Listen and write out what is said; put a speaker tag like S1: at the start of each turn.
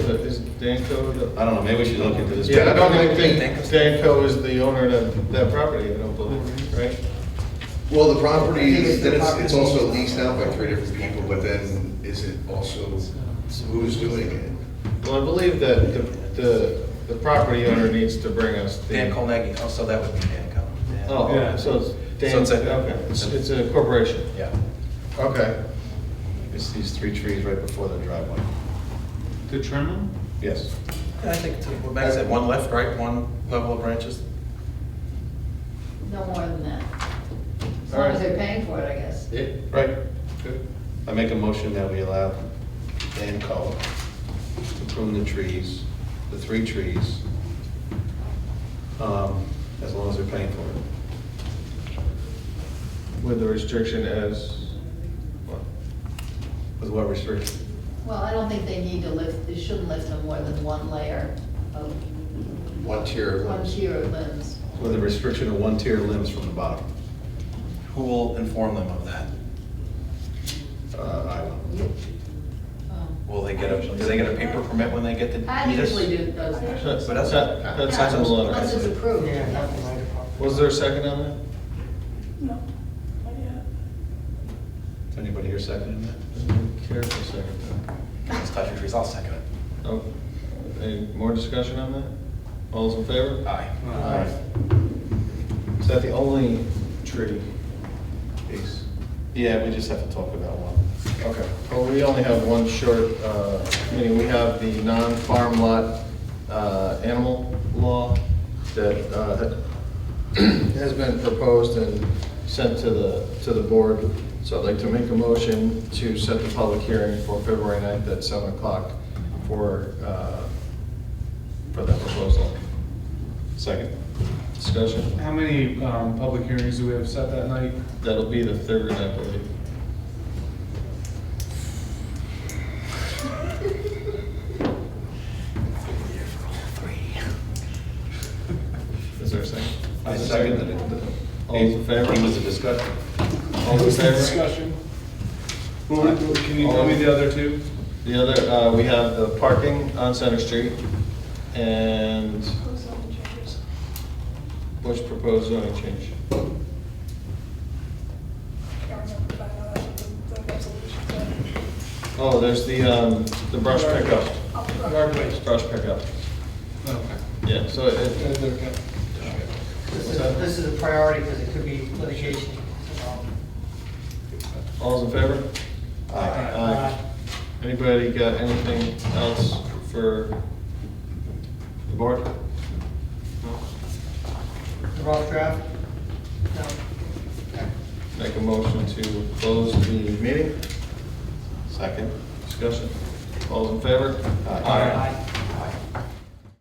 S1: Danco, the-
S2: I don't know, maybe we should look into this.
S1: yeah, I don't even think Danco is the owner of that property, I don't believe, right?
S3: Well, the property, is- then it's, it's also leased out by three different people, but then is it also, who's doing it?
S1: Well, I believe that the, the, the property owner needs to bring us the.
S4: Dan Colnaggy, oh, so that would be Dan Col- Dan.
S1: Oh, so it's
S4: So
S1: Dan,
S4: it's a-
S1: okay, it's it's a corporation,
S4: Yeah.
S1: okay.
S2: It's these three trees right before the driveway.
S5: To trim them?
S2: Yes.
S4: Yeah, I think, it's- what Max said, one left, right, one level of branches?
S6: No more than that. As
S1: All
S6: long as
S1: right.
S6: they're paying for it, I guess.
S1: Yeah,
S2: Right. Good. I make a motion that we allow Dan Cullen to prune the trees, the three trees, um, as long as they're paying for it.
S1: With the restriction as, what?
S2: With what restriction?
S6: Well, I don't think they need to lift, they shouldn't lift no more than one layer of,
S3: One tier of
S6: one
S3: limbs.
S6: tier of limbs.
S2: With a restriction of one tier limbs from the bottom.
S4: Who will inform them of that?
S2: Uh, I will.
S6: You- um,
S4: Will they get a, do they get a paper permit when they get the?
S6: I usually do those.
S1: That's,
S4: But that's-
S1: that's
S6: Yeah,
S1: on the
S6: Unless
S1: letter.
S6: it's approved.
S7: Yeah,
S6: yeah.
S7: not the light department.
S1: Was there a second on that?
S8: No, not yet.
S2: Is Anybody here seconding that?
S1: Doesn't Care for a second. though.
S4: Let's touch your trees, I'll second it.
S1: Oh, Any more discussion on that? All's in favor?
S4: Aye.
S1: Is that the only tree?
S2: Peace. Yeah, we just have to talk about one.
S1: Okay, well, we only have one short uh, meeting. We have the non-farm lot uh, animal law that uh, has been proposed and sent to the, to the board. So I'd like to make a motion to set the public hearing for February 9th at 7 o'clock for, uh, for that proposal.
S2: Second.
S1: Discussion?
S5: How many um, public hearings do we have set that night?
S1: That'll be the third, I believe. Is there a second?
S2: I
S1: Is there a
S2: seconded it.
S1: All's in favor?
S2: It was a discussion.
S1: All in favor?
S5: Discussion. Well, Can you tell me the other two?
S1: The other, uh, we have the parking on Center Street and
S8: Those are the changes.
S1: which proposed zoning change?
S8: Can't remember by now, that's what the the resolution said.
S1: Oh, there's the, um, the brush pickup.
S8: I'll try.
S1: Brush pickup.
S5: Okay.
S1: Yeah, so it,
S7: This is, this is a priority because it could be litigation. um, involved.
S1: all's in favor?
S2: Aye.
S7: uh,
S1: Aye. Anybody got anything else for the board? No.
S7: Uh, The rough draft? No.
S1: Make a motion to close the meeting,
S2: Second.
S1: discussion. All's in favor?
S2: Aye.
S7: Aye.